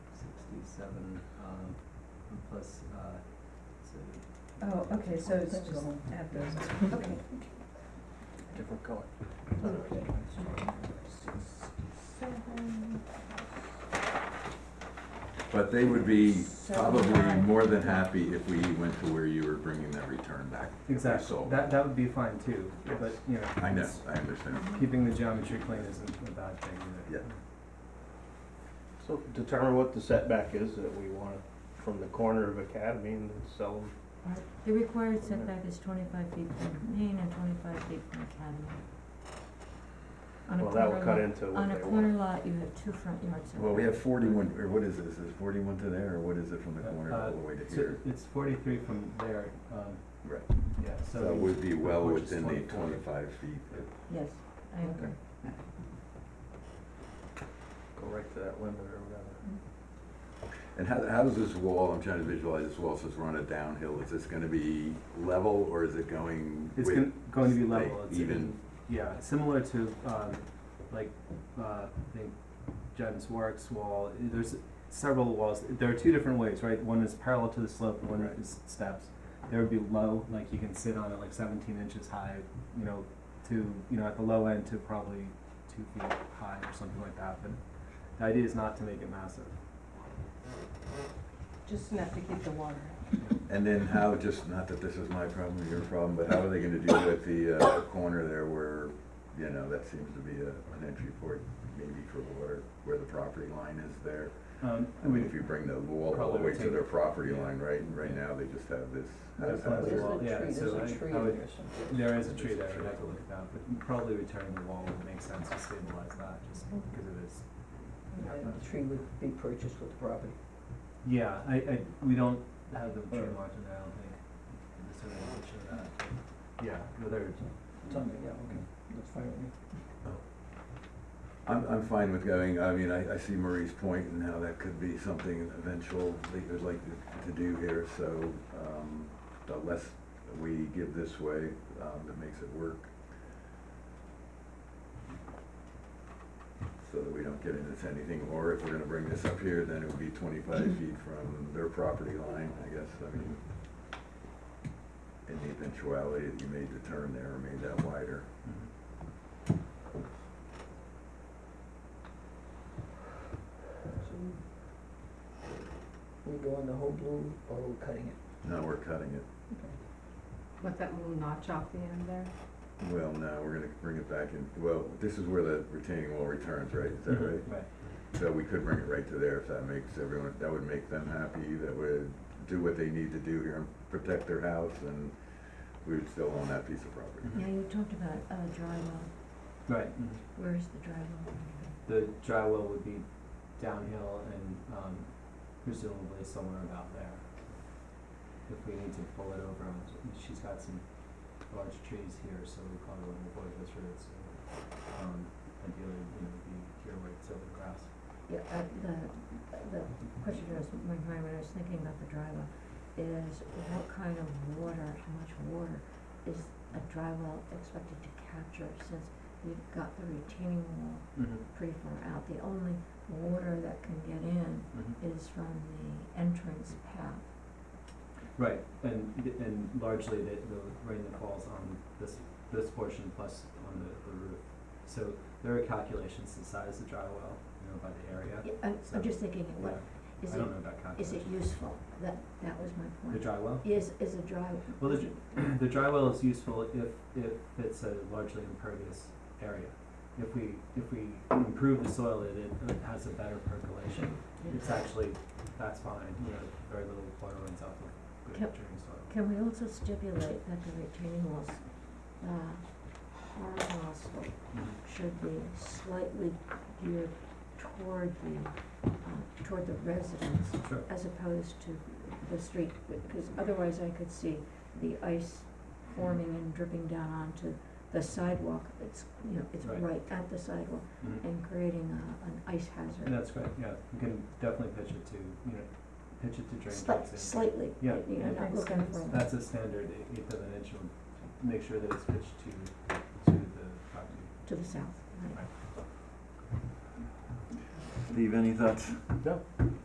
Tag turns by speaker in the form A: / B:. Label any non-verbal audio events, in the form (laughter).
A: seven, um, plus, uh, it's a
B: Oh, okay, so it's just add those, okay.
A: different color.
B: Okay.
C: But they would be
B: So
C: probably
B: high.
C: more than happy if we went to where you were bringing that return back.
A: Exactly,
C: So-
A: that, that would be fine too,
C: Yes.
A: but, you know.
C: I know,
A: it's-
C: I understand.
A: Keeping the geometry clean isn't a bad thing either.
C: Yeah.
D: So determine what the setback is that we want from the corner of Academy and then sell them.
E: The required setback is twenty-five feet from Main and twenty-five feet from Academy. On a
D: Well, that will
E: corner
D: cut
E: lot-
D: into
E: On
D: what
E: a
D: they
E: corner
D: want.
E: lot, you have two front yard setbacks.
C: Well, we have forty-one, or what is this, is forty-one to there, or what is it from the corner all the way to
A: So
C: here?
A: it's forty-three from there, um,
C: Right,
A: yeah, so.
C: that would be well
A: Which is
C: within the
A: 24.
C: twenty-five feet.
E: Yes, I agree.
D: Go right to that limit or whatever.
C: And how, how does this wall, I'm trying to visualize this wall, since we're on a downhill, is this gonna be level, or is it going
A: It's
C: with-
A: gon- going to be
C: like,
A: level, it's
C: even-
A: yeah, similar to, um, like, uh, I think Jen's works wall, eh, there's several walls, there are two different ways, right? One is parallel to the slope, and one
C: Right.
A: is steps. There would be low, like you can sit on it like seventeen inches high, you know, to, you know, at the low end to probably two feet high or something like that, but the idea is not to make it massive.
B: Just enough to keep the water
C: And then how, just, not that this is my problem or your problem, but how are they gonna do with the, uh, corner there where, you know, that seems to be a, an entry port, maybe for water, where the property line is there?
A: Um,
C: I mean, if you bring the wall all the
A: Probably
C: way to
A: take-
C: their property line,
A: yeah.
C: right, and right
A: Yeah.
C: now, they just have this
A: There's lots of
C: haphazard-
A: wall. Yeah,
B: There's
A: so
B: a
A: I-
B: tree
A: I would-
B: there somewhere.
A: There is a tree there, we'd have to look at that, but probably returning the wall would make sense to stabilize that, just because it is
B: And The tree would be purchased with the property.
A: Yeah, I, I, we don't have the tree marked in there, I don't think. The survey will show that. Yeah, but there, Mm-hmm.
B: Something, yeah, okay, that's fine with me.
C: I'm, I'm fine with going, I mean, I, I see Marie's point and how that could be something eventual that you'd like to- to do here, so, um, the less we give this way, um, that makes it work. So that we don't get into anything, or if we're gonna bring this up here, then it would be twenty-five feet from their property line, I guess, I mean, in the eventuality that you made the turn there or made that wider.
A: Mm-hmm.
B: So we- We go on the whole blue or we're cutting it?
C: Now we're cutting it.
F: With that little notch off the end there?
C: Well, no, we're gonna bring it back in, well, this is where the retaining wall returns, right, is that right?
A: Mm-hmm. Right.
C: So we could bring it right to there if that makes everyone, that would make them happy, that would do what they need to do here and protect their house and we would still own that piece of
A: Mm-hmm.
C: property.
E: Yeah, you talked about, uh, dry well,
A: Right, mhm.
E: where is the dry well?
A: the dry well would be downhill and, um, presumably somewhere about there. If we need to pull it over, um, she's got some large trees here, so we probably wouldn't avoid this route, so, um, ideally, you know, be here where it's over grass.
E: Yeah, uh, the, the question that was in my mind when I was thinking about the dry well is what kind of water, how much water is a dry well expected to capture since you've got the retaining wall
A: Mm-hmm,
E: pretty far out? The only water that can get in
A: mm-hmm.
E: is from the entrance path.
A: Right, and, and largely the, the rain that falls on this, this portion plus on the, the roof. So there are calculations to size the dry well, you know, by the area.
E: Yeah, I'm,
A: So-
E: I'm just thinking, what, is
A: I
E: it,
A: don't know about
E: is it
A: calculations.
E: useful? That, that was my
A: The
E: point.
A: dry well?
E: Is, is a dry,
A: Well, the, dr- the (clears throat) dry well is useful if, if it's a largely impervious area. If we, if we improve the soil, it, it has a better percolation. It's actually, that's fine, you know, very little water runs out of good
E: Yep.
A: draining soil.
E: Can we also stipulate that the retaining walls, uh, horizontal
A: Mm-hmm.
E: should be slightly geared toward the, uh, toward the residence
A: Sure.
E: as opposed to the street? Because otherwise I could see the ice forming and dripping down onto the sidewalk. It's, you know, it's
A: Right.
E: right at the sidewalk
A: Mhm.
E: and creating a, an ice hazard.
A: That's great, yeah, you can definitely pitch it to, you know, pitch it to drain
E: Slight-
A: tracks. in.
E: Slightly,
A: Yeah.
E: you know, not
F: Makes
E: looking
F: sense.
E: for.
A: That's a standard e, eight- eighth of an inch, and make sure that it's pitched to, to the property.
E: to the south, right?
C: Leave any thoughts?